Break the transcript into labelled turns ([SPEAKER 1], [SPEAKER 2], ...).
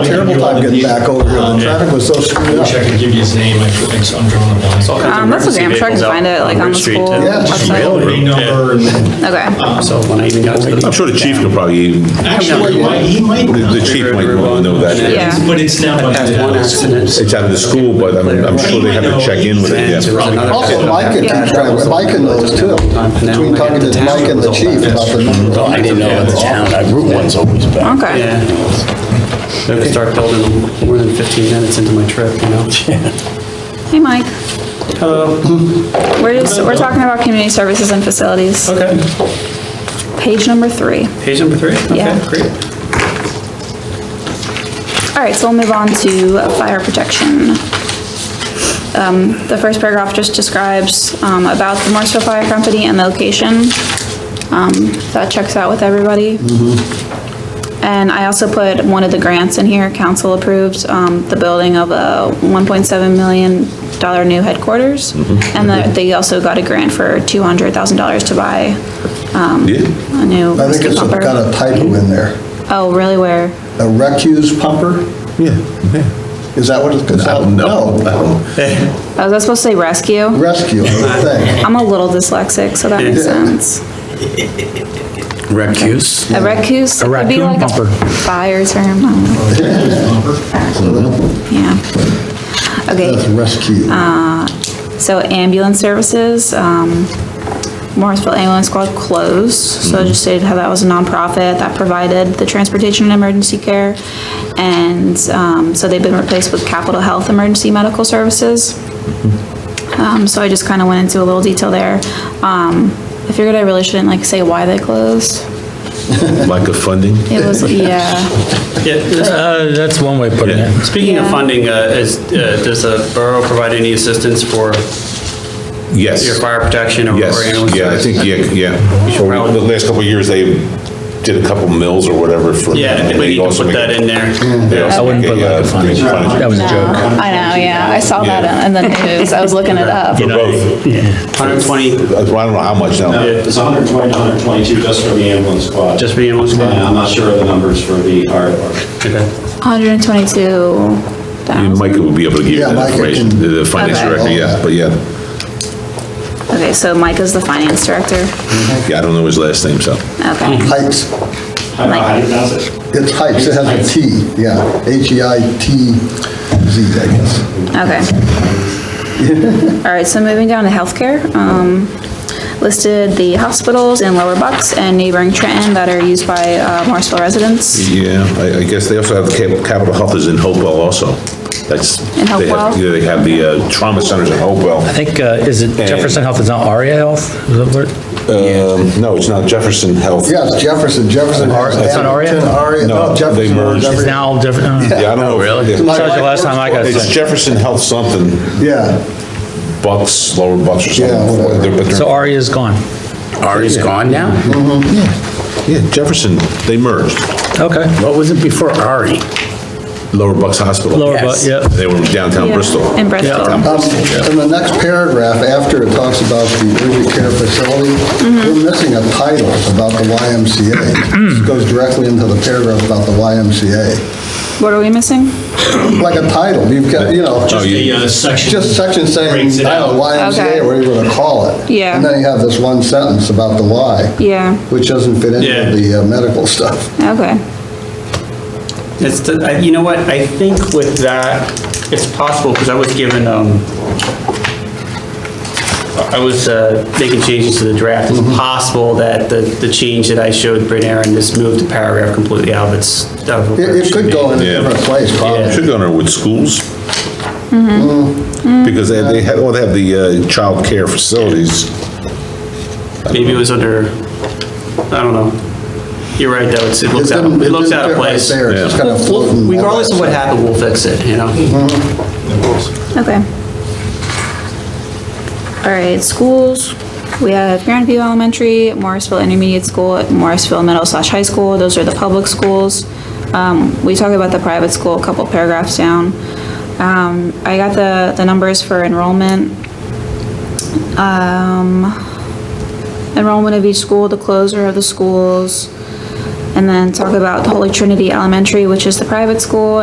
[SPEAKER 1] a terrible time getting back over here. The traffic was so screwed
[SPEAKER 2] Wish Um, I
[SPEAKER 1] up.
[SPEAKER 2] could give you his name, I feel like it's undrawn
[SPEAKER 3] all
[SPEAKER 2] on
[SPEAKER 3] kinds of
[SPEAKER 4] Um, that's okay, I'm
[SPEAKER 3] emergency
[SPEAKER 4] sure I can
[SPEAKER 3] vehicles out
[SPEAKER 4] find it, like, on
[SPEAKER 3] Route
[SPEAKER 4] the
[SPEAKER 3] Street
[SPEAKER 4] school
[SPEAKER 3] to-
[SPEAKER 1] Yeah, it's just
[SPEAKER 2] my.
[SPEAKER 4] website.
[SPEAKER 3] Railroad.
[SPEAKER 2] Any number and then.
[SPEAKER 4] Okay,
[SPEAKER 3] So when I even got to the.
[SPEAKER 5] I'm sure the chief could probably, the
[SPEAKER 2] Actually, he might, he might.
[SPEAKER 5] the chief might really know that.
[SPEAKER 4] Yeah.
[SPEAKER 2] But it's not like.
[SPEAKER 3] Had one accident.
[SPEAKER 5] It's out of the school, but I'm, I'm sure they have to check in with it,
[SPEAKER 3] And there
[SPEAKER 5] yeah.
[SPEAKER 3] was another
[SPEAKER 1] Also,
[SPEAKER 3] accident.
[SPEAKER 1] Mike and, Mike and those too. Between talking to Mike and the chief about the number. of
[SPEAKER 6] I didn't know about the town, I- Route One's always bad.
[SPEAKER 4] okay.
[SPEAKER 3] Yeah. If I start building more than 15 minutes into my trip, you know?
[SPEAKER 4] Hey, Mike. Hello. We're just, we're talking about community services and facilities,
[SPEAKER 3] Okay.
[SPEAKER 4] page number three.
[SPEAKER 3] Page number three?
[SPEAKER 4] Yeah.
[SPEAKER 3] Okay, great.
[SPEAKER 4] All right, so we'll move on to fire protection. Um, The first paragraph just describes um, about the Morrisville Fire Company and the location. Um, That checks out with everybody. And I also put one of the grants in here, council approved, um, the building of a $1.7 million new headquarters. And that they also got a grant for $200,000 to buy
[SPEAKER 5] Yeah,
[SPEAKER 4] a new
[SPEAKER 1] I think
[SPEAKER 4] rescue
[SPEAKER 1] it's a-
[SPEAKER 4] pumper.
[SPEAKER 1] got a typo in there.
[SPEAKER 4] Oh, really, where?
[SPEAKER 1] A recuse pumper?
[SPEAKER 5] yeah, yeah.
[SPEAKER 1] Is that what it's called?
[SPEAKER 5] No.
[SPEAKER 4] Oh, was I supposed to say rescue?
[SPEAKER 1] Rescue, I would think.
[SPEAKER 4] I'm a little dyslexic, so that makes
[SPEAKER 1] Yeah.
[SPEAKER 4] sense.
[SPEAKER 6] Recuse?
[SPEAKER 4] A recuse could be like a fire term. I don't know. Yeah.
[SPEAKER 1] That's
[SPEAKER 4] Okay,
[SPEAKER 1] rescue.
[SPEAKER 4] so ambulance services, um, Morrisville Ambulance Squad closed, so
[SPEAKER 7] Mm-hmm.
[SPEAKER 4] I just stated how that was a nonprofit that provided the transportation and emergency care. And, um, so they've been replaced with Capital Health Emergency Medical Services.
[SPEAKER 7] Mm-hmm.
[SPEAKER 4] Um, so I just kind of went into a little detail there. Um, I figured I really shouldn't like say why they closed.
[SPEAKER 5] Lack of funding,
[SPEAKER 4] It was, yeah,
[SPEAKER 3] Yeah, this-
[SPEAKER 7] Uh, that's one way of putting it.
[SPEAKER 3] Speaking of
[SPEAKER 4] Yeah.
[SPEAKER 3] funding, uh, is, uh, does the borough provide any assistance for
[SPEAKER 5] yes.
[SPEAKER 3] your fire protection or or ambulance?
[SPEAKER 5] Yes, yeah, I
[SPEAKER 3] service?
[SPEAKER 5] think, yeah, yeah. Or we- The last couple of years, they did a couple mills or whatever for.
[SPEAKER 3] Yeah, I think
[SPEAKER 5] and
[SPEAKER 3] we
[SPEAKER 5] they
[SPEAKER 3] need to
[SPEAKER 5] also
[SPEAKER 3] put
[SPEAKER 5] make-
[SPEAKER 3] that in there.
[SPEAKER 5] they also
[SPEAKER 7] I wouldn't
[SPEAKER 5] make
[SPEAKER 7] put
[SPEAKER 5] a,
[SPEAKER 7] lack
[SPEAKER 5] uh,
[SPEAKER 7] of funding.
[SPEAKER 5] big fund.
[SPEAKER 7] That was a
[SPEAKER 4] no,
[SPEAKER 7] joke.
[SPEAKER 4] I know, yeah, I saw that
[SPEAKER 5] Yeah.
[SPEAKER 4] in the news, I was looking it up.
[SPEAKER 5] For
[SPEAKER 8] uh,
[SPEAKER 5] both.
[SPEAKER 3] 120,
[SPEAKER 5] I don't know how much now.
[SPEAKER 8] It's 120, 122 just for the ambulance squad.
[SPEAKER 3] just for the ambulance
[SPEAKER 8] And
[SPEAKER 3] squad?
[SPEAKER 8] I'm not sure of the numbers for the fire department.
[SPEAKER 3] Okay.
[SPEAKER 4] 122
[SPEAKER 5] And
[SPEAKER 4] thousand.
[SPEAKER 5] Mike would be able to give you
[SPEAKER 1] Yeah,
[SPEAKER 5] that
[SPEAKER 1] Micah
[SPEAKER 5] information,
[SPEAKER 1] can-
[SPEAKER 5] the the finance
[SPEAKER 4] Okay.
[SPEAKER 5] director, yeah, but yeah,
[SPEAKER 4] Okay, so Mike is the finance director.
[SPEAKER 5] yeah, I don't know his last name, so.
[SPEAKER 4] Okay,
[SPEAKER 1] Heights.
[SPEAKER 8] How how do you pronounce it?
[SPEAKER 1] It's Heights, it has a T, yeah. E H-E-I-T-Z, I guess.
[SPEAKER 4] okay. All right, so moving down to healthcare, um, listed the hospitals in Lower Bucks and neighboring Trenton that are used by, uh, Morrisville residents.
[SPEAKER 5] Yeah, I, I guess they also have, Cap- Capital Health is in Hopewell also. That's.
[SPEAKER 4] In
[SPEAKER 5] they have-
[SPEAKER 4] Hopewell?
[SPEAKER 5] Yeah, they have the uh, trauma centers in Hopewell.
[SPEAKER 7] I think, uh, is it Jefferson Health is now Aria Health? Is that what-
[SPEAKER 5] Um, no, it's not Jefferson Health.
[SPEAKER 1] Yeah, it's Jefferson, Jefferson. has
[SPEAKER 7] It's not Aria?
[SPEAKER 1] Hamilton, Aria,
[SPEAKER 5] No,
[SPEAKER 1] no,
[SPEAKER 5] they
[SPEAKER 1] Jefferson.
[SPEAKER 5] merged.
[SPEAKER 1] has
[SPEAKER 7] It's
[SPEAKER 1] every-
[SPEAKER 7] now Jefferson.
[SPEAKER 5] Yeah, I don't know.
[SPEAKER 6] really?
[SPEAKER 5] Yeah.
[SPEAKER 1] My
[SPEAKER 7] That was
[SPEAKER 1] wife
[SPEAKER 7] the last time Oh, I got
[SPEAKER 1] works for-
[SPEAKER 5] It's Jefferson Health something,
[SPEAKER 1] Yeah,
[SPEAKER 5] Bucks, Lower Bucks or something.
[SPEAKER 1] Yeah, whatever.
[SPEAKER 5] They're- but they're-
[SPEAKER 7] So Aria's gone.
[SPEAKER 6] Ari's gone now?
[SPEAKER 1] Mm-hmm.
[SPEAKER 5] Yeah, Jefferson, they merged,
[SPEAKER 7] Okay.
[SPEAKER 6] What was it before Ari?
[SPEAKER 5] Lower Bucks Hospital.
[SPEAKER 7] Lower,
[SPEAKER 6] Yes.
[SPEAKER 7] but, yeah.
[SPEAKER 5] They were downtown
[SPEAKER 4] Yeah,
[SPEAKER 5] Bristol.
[SPEAKER 4] In Bristol.
[SPEAKER 1] um, in the next paragraph, after it talks about the urgent care facility,
[SPEAKER 4] Mm-hmm.
[SPEAKER 1] we're missing a title about the YMCA. This goes directly into the paragraph about the YMCA.
[SPEAKER 4] What are we missing?
[SPEAKER 1] Like a title, you've got, you know,
[SPEAKER 5] Oh,
[SPEAKER 2] The
[SPEAKER 5] you-
[SPEAKER 2] uh, section.
[SPEAKER 1] just section saying,
[SPEAKER 2] Breaks it
[SPEAKER 1] I don't know, YMCA,
[SPEAKER 4] Okay.
[SPEAKER 1] or whatever you want to call it.
[SPEAKER 4] Yeah.
[SPEAKER 1] And then you have this one sentence about the Y.
[SPEAKER 4] Yeah,
[SPEAKER 1] Which doesn't fit
[SPEAKER 3] Yeah.
[SPEAKER 1] into the uh, medical stuff.
[SPEAKER 4] okay,
[SPEAKER 3] It's, the- I- you know what, I think with that, it's possible, because I was given, um, I was uh, making changes to the draft. It's
[SPEAKER 1] Mm-hmm.
[SPEAKER 3] possible that the, the change that I showed Bryn Aaron just moved the paragraph completely out of its. out of where
[SPEAKER 1] It, it
[SPEAKER 3] should
[SPEAKER 1] could go in a
[SPEAKER 3] be.
[SPEAKER 5] Yeah.
[SPEAKER 1] different place, probably.
[SPEAKER 5] Should go under with schools.
[SPEAKER 4] Mm-hmm.
[SPEAKER 1] Mm-hmm.
[SPEAKER 5] Because they, they have, well, they have the uh, child care facilities.
[SPEAKER 3] Maybe it was under, I don't know. You're right, though, it's, it looks out,
[SPEAKER 1] didn't-
[SPEAKER 3] it looks
[SPEAKER 1] didn't
[SPEAKER 3] out of
[SPEAKER 1] fit right
[SPEAKER 3] place.
[SPEAKER 1] there, it's just kind of floating.
[SPEAKER 3] Regardless of what happened, we'll fix it, you know?
[SPEAKER 4] okay. All right, schools, we have Grandview Elementary, Morrisville Intermediate School, Morrisville Middle slash High School, those are the public schools. Um, we talk about the private school a couple paragraphs down. Um, I got the, the numbers for enrollment. Um, enrollment of each school, the closure of the schools, and then talk about the Holy Trinity Elementary, which is the private school,